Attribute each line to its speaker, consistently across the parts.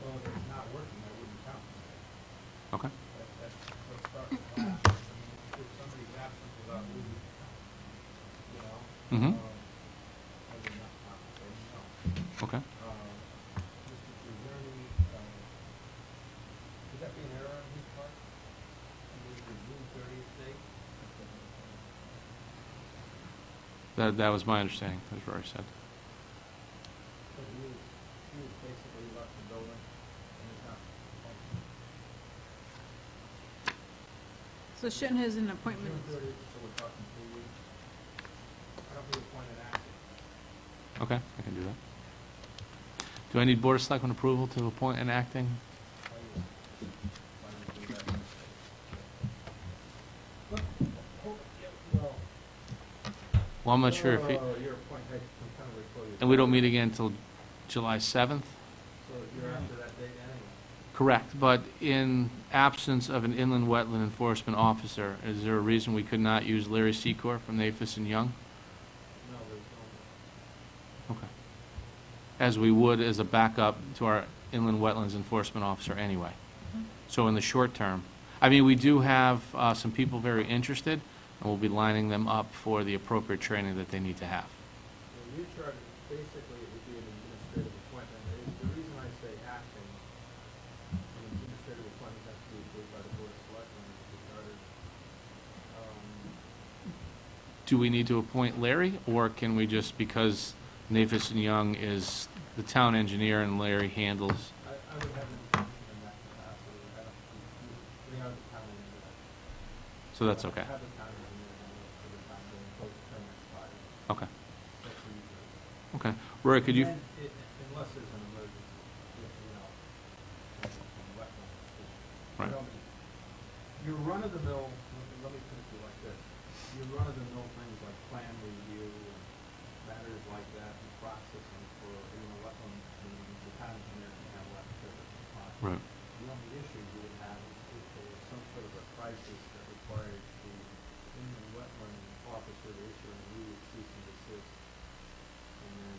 Speaker 1: So if it's not working, I wouldn't count.
Speaker 2: Okay.
Speaker 1: That, that's what's starting to lapse. I mean, if- if somebody's absent without leave, you know?
Speaker 2: Mhm.
Speaker 1: um, I would not count, I would count.
Speaker 2: Okay.
Speaker 1: Um, just if there's any, um, could that be an error on his part? I mean, the June thirtieth date?
Speaker 2: That, that was my understanding, that's what I said.
Speaker 1: So he was, he was basically left the building and is not functioning.
Speaker 3: So Shin has an appointment,
Speaker 1: June thirtieth, so we're talking three weeks. I don't think appointed active.
Speaker 2: Okay, I can do that. Do I need Board of Selectmen approval to appoint an acting?
Speaker 1: I would- I would do that. Look, oh, yeah, well,
Speaker 2: Well, I'm not sure if,
Speaker 1: Oh,
Speaker 2: he-
Speaker 1: you're appointed, I'm kind of recording.
Speaker 2: and we don't meet again until July 7th?
Speaker 1: So you're after that date anyway.
Speaker 2: Correct, but in absence of an inland wetland enforcement officer, is there a reason we could not use Larry Secor from Nafis and Young?
Speaker 1: No, there's no.
Speaker 2: Okay. As we would as a backup to our inland wetlands enforcement officer anyway. So in the short term, I mean, we do have uh, some people very interested, and we'll be lining them up for the appropriate training that they need to have.
Speaker 1: Well, you charge, basically, it would be an administrative appointment. The- The reason I say acting, an administrative appointment has to be approved by the board of selectmen as it's started. Um,
Speaker 2: Do we need to appoint Larry, or can we just, because Nafis and Young is the town engineer and Larry handles?
Speaker 1: I, I would have an intention in that capacity. I don't, you- you- we are the town engineer.
Speaker 2: So that's okay.
Speaker 1: Have the town engineer, and we'll have the town engineer, both term expires.
Speaker 2: Okay,
Speaker 1: That's what you do.
Speaker 2: okay. Rory, Oh. could you?
Speaker 1: And then it- Unless there's an emergency, you know, from- from wetland. You
Speaker 2: Right.
Speaker 1: don't need- Your run-of-the-mill, let me- let me put it to you like this, your run-of-the-mill things like plan review and matters like that and processing for, you know, wetland, the town engineer can handle that because it's fine.
Speaker 2: Right,
Speaker 1: The only issue you would have is if there was some sort of a crisis that required the inland wetland officer to issue an immediate cease and desist. And then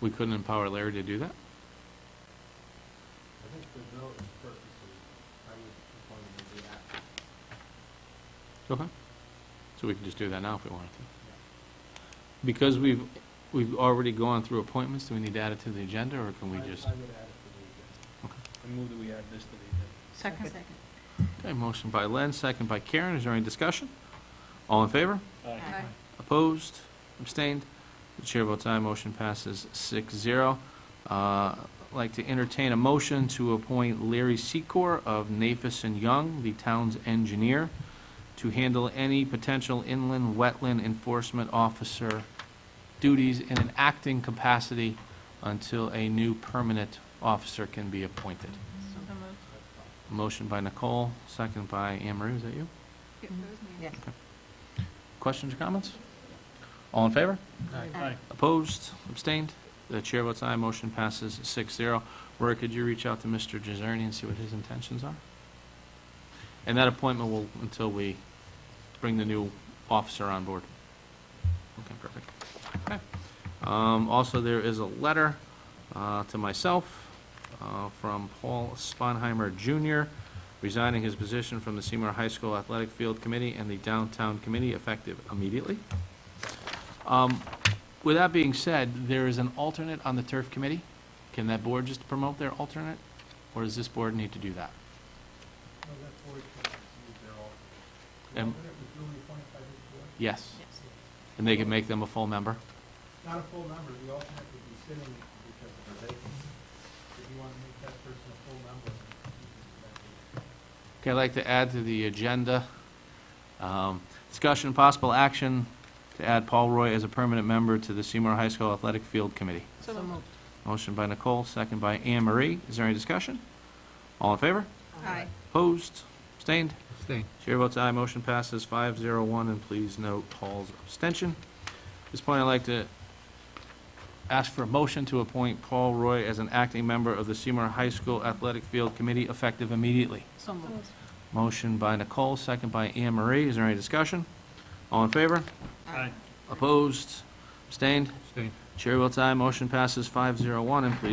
Speaker 2: we couldn't empower Larry to do that?
Speaker 1: I think for those purposes, I would appoint him to be active.
Speaker 2: Okay. So we can just do that now if we wanted to.
Speaker 1: Yeah.
Speaker 2: Because we've, we've already gone through appointments, do we need to add it to the agenda, or can we
Speaker 1: I-
Speaker 2: just?
Speaker 1: I would add it to the agenda.
Speaker 2: Okay.
Speaker 4: I move that we add this to the agenda.
Speaker 3: second.
Speaker 2: Okay, motion by Len, second by Karen, is there any discussion? All in favor?
Speaker 3: Aye.
Speaker 2: Opposed? Abstained? The chair votes aye, motion passes six zero. Uh, I'd Like to entertain a motion to appoint Larry Secor of Nafis and Young, the town's engineer, to handle any potential inland wetland enforcement officer duties in an acting capacity until a new permanent officer can be appointed.
Speaker 3: So moved.
Speaker 1: That's fine.
Speaker 2: Motion by Nicole, second by Anne Marie, is that you?
Speaker 3: It was me.
Speaker 5: Yes.
Speaker 2: Questions or comments? All in favor?
Speaker 5: Aye.
Speaker 2: Opposed, abstained? The chair votes aye, motion passes 6-0. Rory, could you reach out to Mr. Gizerni and see what his intentions are? And that appointment will, until we bring the new officer on board. Okay, perfect. Okay. Um, Also, there is a letter uh, to myself uh, from Paul Sponheimer Jr., resigning his position from the Seymour High School Athletic Field Committee and the Downtown Committee effective immediately. Um, with that being said, there is an alternate on the turf committee. Can that board just promote their alternate, or does this board need to do that?
Speaker 1: No, that board can use their alternate. The
Speaker 2: Um,
Speaker 1: alternate was duly appointed by this board?
Speaker 2: Yes,
Speaker 3: Yes.
Speaker 2: and they can make them a full member.
Speaker 1: Not a full member, the alternate would be sitting because of the vacancy. If you want to make that person a full member, you can do that.
Speaker 2: Okay, I'd like to add to the agenda, um, discussion, and possible action to add Paul Roy as a permanent member to the Seymour High School Athletic Field Committee.
Speaker 3: So moved.
Speaker 2: Motion by Nicole, second by Anne Marie. Is there any discussion? All in favor?
Speaker 3: Aye.
Speaker 2: Opposed? Abstained?
Speaker 4: Abstain.
Speaker 2: Chair votes aye, motion passes five zero one, and please note Paul's abstention. At this point, I'd like to ask for a motion to appoint Paul Roy as an acting member of the Seymour High School Athletic Field Committee effective immediately.
Speaker 3: So moved.
Speaker 2: Motion by Nicole, second by Anne Marie. Is there any discussion? All in favor? Opposed? Abstained?
Speaker 4: Abstain.
Speaker 2: Chair votes aye, motion passes five zero one, and please